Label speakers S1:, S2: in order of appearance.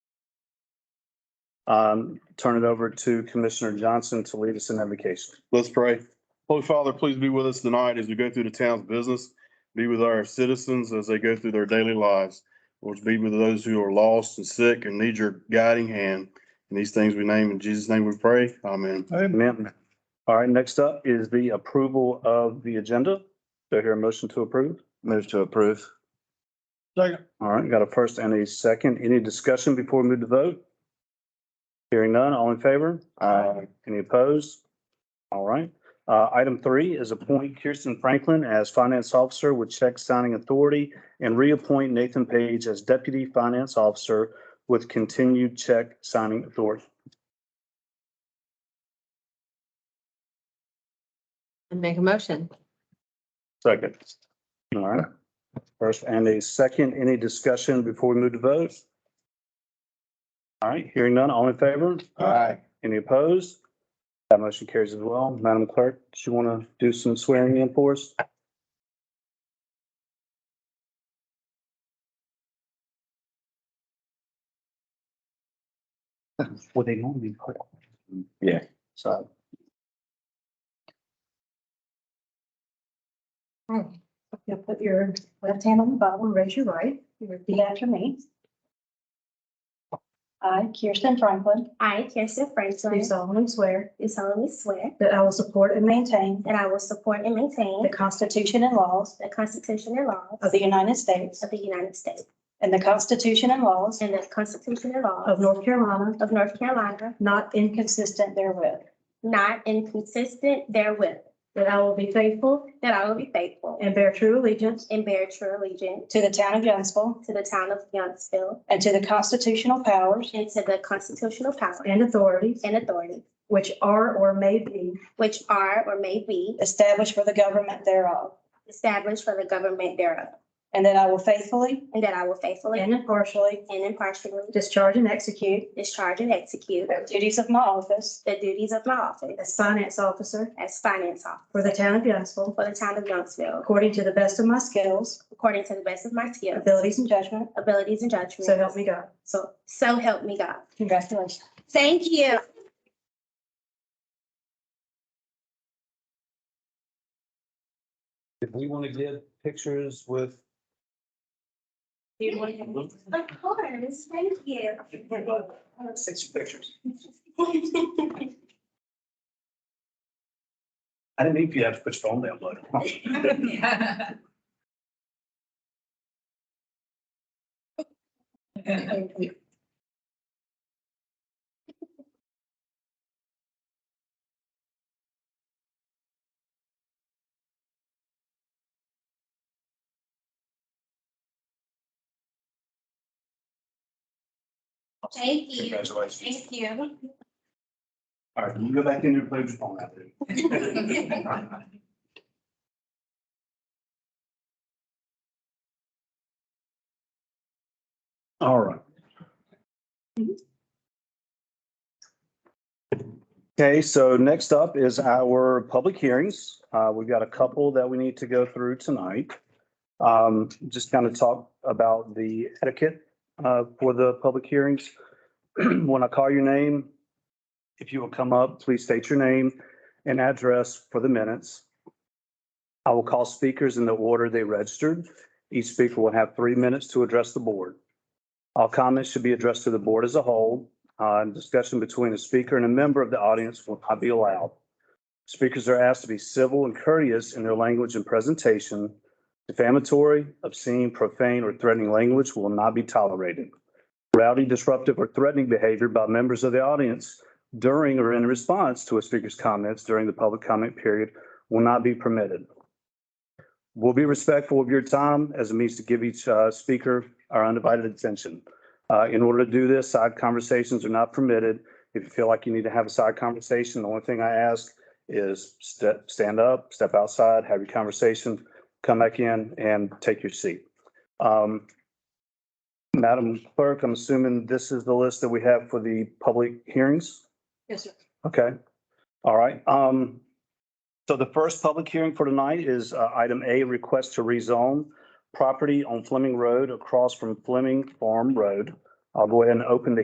S1: um, turn it over to Commissioner Johnson to lead us in invocation.
S2: Let's pray. Holy Father, please be with us tonight as we go through the town's business. Be with our citizens as they go through their daily lives. Lord, be with those who are lost and sick and need your guiding hand. And these things we name in Jesus' name we pray. Amen.
S1: Amen. All right, next up is the approval of the agenda. Do I hear a motion to approve?
S3: Move to approve.
S4: Second.
S1: All right, got a first and a second. Any discussion before we move to vote? Hearing none, all in favor?
S3: Aye.
S1: Any opposed? All right. Uh, item three is appoint Kirsten Franklin as finance officer with check signing authority and reappoint Nathan Page as deputy finance officer with continued check signing authority.
S5: And make a motion.
S1: Second. All right. First and a second, any discussion before we move to vote? All right, hearing none, all in favor?
S3: Aye.
S1: Any opposed? That motion carries as well. Madam Clerk, do you want to do some swearing in for us? Well, they normally put.
S3: Yeah.
S1: So.
S6: All right. If You'll put your left hand on the Bible and raise your right. You Repeat after me. I, Kirsten Franklin,
S7: I, Kirsten
S6: do
S7: Franklin,
S6: solemnly swear
S7: do solemnly swear
S6: that I will support and maintain
S7: that I will support and
S6: the
S7: maintain
S6: Constitution and laws
S7: the Constitution and laws
S6: of the United States
S7: of the United States
S6: and the Constitution and laws
S7: and the Constitution and
S6: of
S7: laws
S6: North Carolina,
S7: of North Carolina,
S6: not inconsistent therewith,
S7: not inconsistent therewith,
S6: that I will be faithful
S7: that I will be faithful
S6: and bear true allegiance
S7: and bear true allegiance
S6: to the town of Youngsville
S7: to the town of Youngsville
S6: and to the constitutional powers
S7: and to the constitutional powers
S6: and authorities
S7: and authorities
S6: which are or may be
S7: which are or may be
S6: established for the government thereof,
S7: established for the government thereof,
S6: and that I will faithfully
S7: and that I will faithfully
S6: and
S7: and
S6: impartially
S7: impartially
S6: discharge and execute
S7: discharge and execute
S6: the duties of my office
S7: the duties of my office
S6: as finance officer
S7: as finance officer
S6: for the town of Youngsville
S7: for the town of Youngsville
S6: according to the best of my skills,
S7: according to the best of my skills,
S6: abilities, and judgment,
S7: abilities, and judgment.
S6: so help me God.
S7: So, so help me God.
S6: Congratulations.
S7: Thank you.
S1: If we want to give pictures with
S7: Of course, thank you.
S1: Six pictures.
S4: I didn't think you have to put your phone down, bud.
S7: Thank you.
S4: Congratulations.
S7: Thank you.
S4: All right, you go back in there and play with your phone out there.
S1: All right. Okay, so next up is our public hearings. Uh, we've got a couple that we need to go through tonight. Um, just kind of talk about the etiquette, uh, for the public hearings. When I call your name, if you will come up, please state your name and address for the minutes. I will call speakers in the order they registered. Each speaker will have three minutes to address the board. All comments should be addressed to the board as a whole. Uh, and discussion between a speaker and a member of the audience will not be allowed. Speakers are asked to be civil and courteous in their language and presentation. Defamatory, obscene, profane, or threatening language will not be tolerated. Rowdy, disruptive, or threatening behavior by members of the audience during or in response to a speaker's comments during the public comment period will not be permitted. We'll be respectful of your time as a means to give each uh, speaker our undivided attention. Uh, In order to do this, side conversations are not permitted. If you feel like you need to have a side conversation, the only thing I ask is step, stand up, step outside, have your conversation, come back in and take your seat. Um, Madam Clerk, I'm assuming this is the list that we have for the public hearings?
S6: Yes, sir.
S1: Okay, all right. Um, so the first public hearing for tonight is uh, item A, request to rezone property on Fleming Road across from Fleming Farm Road. I'll go ahead and open the